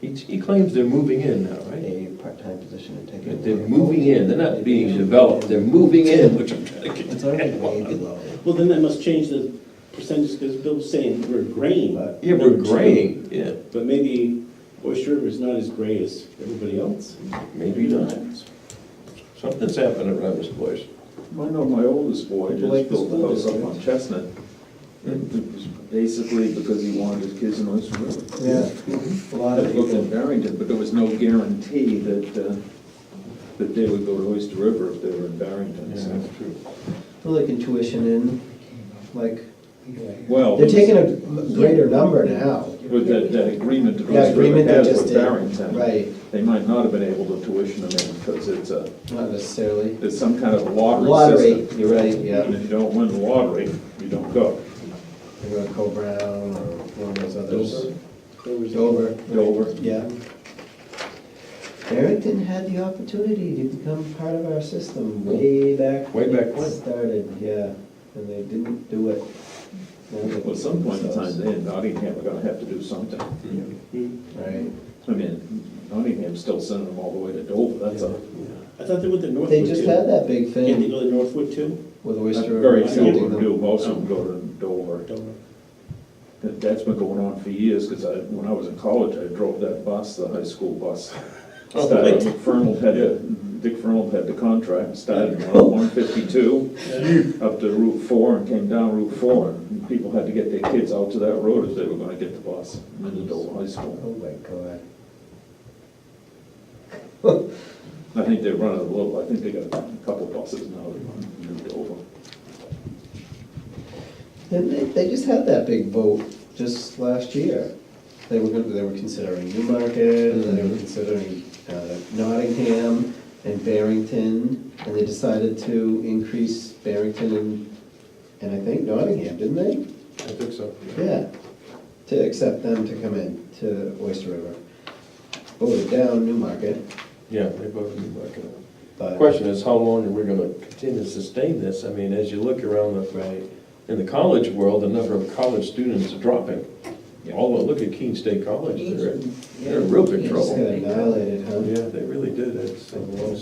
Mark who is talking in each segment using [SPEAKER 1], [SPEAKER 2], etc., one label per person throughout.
[SPEAKER 1] He, he claims they're moving in now, right?
[SPEAKER 2] a part-time position and take
[SPEAKER 1] But
[SPEAKER 2] it.
[SPEAKER 1] They're moving in, they're not being developed, they're moving in, which I'm trying to get.
[SPEAKER 2] It's already way below.
[SPEAKER 3] Well, then that must change the percentage, because Bill's saying we're graying.
[SPEAKER 1] Uh, Yeah, we're graying, yeah,
[SPEAKER 3] But maybe Oyster River is not as gray as everybody else.
[SPEAKER 1] maybe not. Something's happening around this place.
[SPEAKER 4] I know my oldest boy
[SPEAKER 2] Like
[SPEAKER 4] just
[SPEAKER 2] the
[SPEAKER 4] built
[SPEAKER 2] school
[SPEAKER 4] a house up on
[SPEAKER 2] district.
[SPEAKER 4] Chestnut. It was Basically because he wanted his kids in Oyster River.
[SPEAKER 2] Yeah, a lot of
[SPEAKER 4] It looked in
[SPEAKER 2] people,
[SPEAKER 4] Barrington, but there was no guarantee that, uh, that they would go to Oyster River if they were in Barrington, so.
[SPEAKER 1] true.
[SPEAKER 2] well, like in tuition and, like,
[SPEAKER 1] Oh.
[SPEAKER 4] Well,
[SPEAKER 2] they're
[SPEAKER 4] with
[SPEAKER 2] taking a greater number now.
[SPEAKER 4] that, that agreement that
[SPEAKER 2] That
[SPEAKER 4] Oyster
[SPEAKER 2] agreement
[SPEAKER 4] River
[SPEAKER 2] they
[SPEAKER 4] has
[SPEAKER 2] just
[SPEAKER 4] with
[SPEAKER 2] did,
[SPEAKER 4] Barrington,
[SPEAKER 2] right,
[SPEAKER 4] they might not have been able to tuition them in because it's a,
[SPEAKER 2] not necessarily.
[SPEAKER 4] it's some kind of
[SPEAKER 2] Lottery,
[SPEAKER 4] lottery system.
[SPEAKER 2] you're right,
[SPEAKER 4] And
[SPEAKER 2] yeah,
[SPEAKER 4] if you don't win the lottery, you don't go.
[SPEAKER 2] they go to Co-Brown or one of those others.
[SPEAKER 1] Dover.
[SPEAKER 2] Dover.
[SPEAKER 4] Dover.
[SPEAKER 2] Yeah. Barrington had the opportunity to become part of our system way back.
[SPEAKER 1] Way back
[SPEAKER 2] it
[SPEAKER 1] when.
[SPEAKER 2] Started, yeah, and they didn't do it. Now they-
[SPEAKER 4] Well, at some point in time, they in Nottingham are gonna have to do something.
[SPEAKER 3] Hmm.
[SPEAKER 2] Right.
[SPEAKER 4] I mean, Nottingham's still sending them all the way to Dover, that's a,
[SPEAKER 3] I thought they went to Northwood
[SPEAKER 2] They
[SPEAKER 3] too.
[SPEAKER 2] just had that big
[SPEAKER 3] Can't they
[SPEAKER 2] thing
[SPEAKER 3] go to Northwood too?
[SPEAKER 2] with
[SPEAKER 4] that's
[SPEAKER 2] Oyster.
[SPEAKER 4] very few
[SPEAKER 3] something
[SPEAKER 4] of them do, most of them go to Dover. That- That's been going on for years, because I, when I was in college, I drove that bus, the high school bus.
[SPEAKER 1] Oh,
[SPEAKER 4] Started,
[SPEAKER 1] right.
[SPEAKER 4] Fernald had, the- Dick Fernald had the contract, started on one fifty-two, up to Route Four, and came down Route Four, and people had to get their kids out to that road if they were gonna get the bus into Dover High School.
[SPEAKER 2] Oh my God.
[SPEAKER 4] I think they run it a little, I think they got a couple buses now that run to Dover.
[SPEAKER 2] And they, they just had that big vote just last year. They were gonna, they were considering Newmarket, and
[SPEAKER 5] Mm-hmm.
[SPEAKER 2] they were considering uh, Nottingham and Barrington, and they decided to increase Barrington and, and I think Nottingham, didn't they?
[SPEAKER 1] I think so.
[SPEAKER 2] Yeah, to accept them to come in to Oyster River. Voted down Newmarket,
[SPEAKER 1] Yeah, they both need backing up. The
[SPEAKER 2] but.
[SPEAKER 1] Question is, how long are we gonna continue to sustain this? I mean, as you look around the,
[SPEAKER 2] Right,
[SPEAKER 1] in the college world, the number of college students are dropping. Although, look at Keene State College, they're, in- they're in real big
[SPEAKER 2] They just got
[SPEAKER 1] trouble.
[SPEAKER 2] annihilated, huh?
[SPEAKER 1] Yeah, they really did, it's,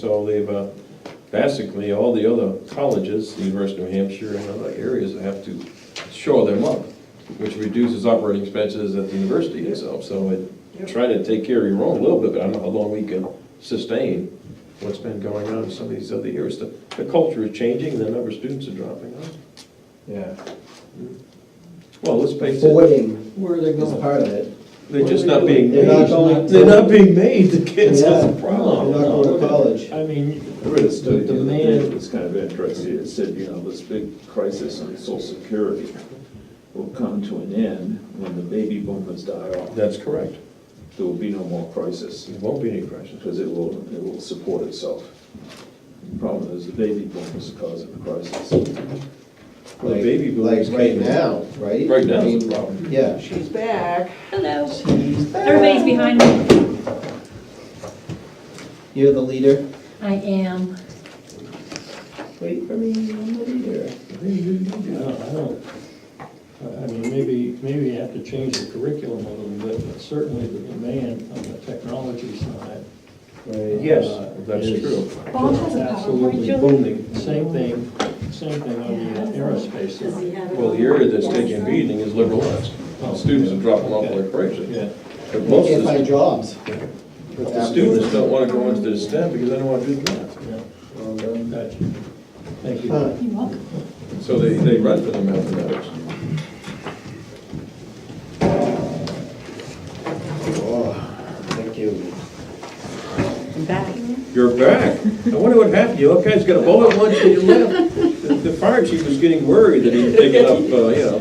[SPEAKER 1] so they've, uh, basically, all the other colleges, the University of New Hampshire and other areas have to shore them up, which reduces operating expenses at the university itself, so it, try to take care of your own a little bit, but I don't know how long we can sustain what's been going on in some of these other areas. The, the culture is changing, the number of students are dropping off.
[SPEAKER 2] Yeah.
[SPEAKER 1] Well, let's face it,
[SPEAKER 2] Voting
[SPEAKER 5] Where are they
[SPEAKER 2] is
[SPEAKER 5] going?
[SPEAKER 2] part of it.
[SPEAKER 1] they're just not being
[SPEAKER 2] They're not
[SPEAKER 1] made,
[SPEAKER 2] going-
[SPEAKER 1] they're not being made, the kids, that's the
[SPEAKER 2] Yeah.
[SPEAKER 1] problem.
[SPEAKER 2] They're not going to college.
[SPEAKER 5] I mean,
[SPEAKER 4] I read a study the other day that
[SPEAKER 5] Demand.
[SPEAKER 4] was kind of interesting, it said, you know, this big crisis on social security will come to an end when the baby boomers die off.
[SPEAKER 1] That's correct,
[SPEAKER 4] There will be no more crisis,
[SPEAKER 1] there won't be any questions.
[SPEAKER 4] because it will, it will support itself. The Problem is, the baby boomers are causing the crisis.
[SPEAKER 1] Well, the baby boomers
[SPEAKER 2] Like right
[SPEAKER 1] came in.
[SPEAKER 2] now, right?
[SPEAKER 1] Right
[SPEAKER 2] I
[SPEAKER 1] now
[SPEAKER 2] mean,
[SPEAKER 1] is the problem.
[SPEAKER 2] Yeah.
[SPEAKER 5] she's back.
[SPEAKER 6] Hello. Everybody's behind me.
[SPEAKER 2] You're the leader.
[SPEAKER 6] I am.
[SPEAKER 2] Wait for me, I'm the leader.
[SPEAKER 5] I don't, I don't, I- I mean, maybe, maybe you have to change the curriculum a little bit, but certainly the demand on the technology side.
[SPEAKER 2] Right.
[SPEAKER 1] Yes,
[SPEAKER 5] uh,
[SPEAKER 1] that's
[SPEAKER 5] is
[SPEAKER 1] true.
[SPEAKER 6] Bob has a PowerPoint,
[SPEAKER 5] Absolutely
[SPEAKER 6] Julie?
[SPEAKER 5] booming. Same thing, same thing on the aerospace
[SPEAKER 6] Does he
[SPEAKER 5] side.
[SPEAKER 6] have it
[SPEAKER 1] Well, the
[SPEAKER 6] on?
[SPEAKER 1] area that's taking
[SPEAKER 6] Yes.
[SPEAKER 1] a beating is liberal arts. Students are dropping off like crazy.
[SPEAKER 5] Yeah,
[SPEAKER 1] But
[SPEAKER 2] They
[SPEAKER 1] most
[SPEAKER 2] can't
[SPEAKER 1] of
[SPEAKER 2] find
[SPEAKER 1] the,
[SPEAKER 2] jobs.
[SPEAKER 1] but the students don't wanna go into the STEM because they don't wanna do math.
[SPEAKER 5] yeah,
[SPEAKER 2] Well done.
[SPEAKER 5] gotcha. Thank you.
[SPEAKER 2] Huh.
[SPEAKER 6] You're welcome.
[SPEAKER 1] So they, they run for the mathematics.
[SPEAKER 2] Oh, Thank you.
[SPEAKER 6] I'm back.
[SPEAKER 1] You're back. I wonder what happened. You all guys got a bullet lunch and you left. The- The fire chief was getting worried that he was picking up, uh, you know,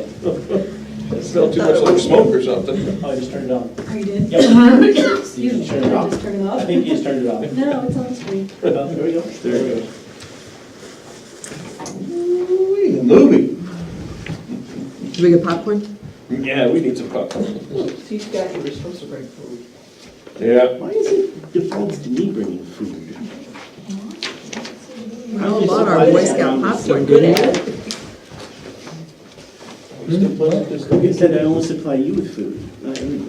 [SPEAKER 1] it smelled too much like smoke or something.
[SPEAKER 3] Oh, I just turned it on.
[SPEAKER 6] Oh, you did? Excuse me,
[SPEAKER 3] Turn
[SPEAKER 6] did
[SPEAKER 3] it
[SPEAKER 6] I
[SPEAKER 3] off.
[SPEAKER 6] just turn it
[SPEAKER 3] I
[SPEAKER 6] off?
[SPEAKER 3] think you just turned it off.
[SPEAKER 6] No, it's on screen.
[SPEAKER 3] Oh, There we go. There we go.
[SPEAKER 1] Ooh-wee, a Movie.
[SPEAKER 7] Do we get popcorn?
[SPEAKER 1] Yeah, we need some popcorn.
[SPEAKER 7] She's got, you were supposed to bring food.
[SPEAKER 1] Yeah.
[SPEAKER 3] Why is it defaults to me bringing food?
[SPEAKER 7] I don't want our Boy Scout popcorn, do they?
[SPEAKER 3] You said I only supply you with food, not everybody.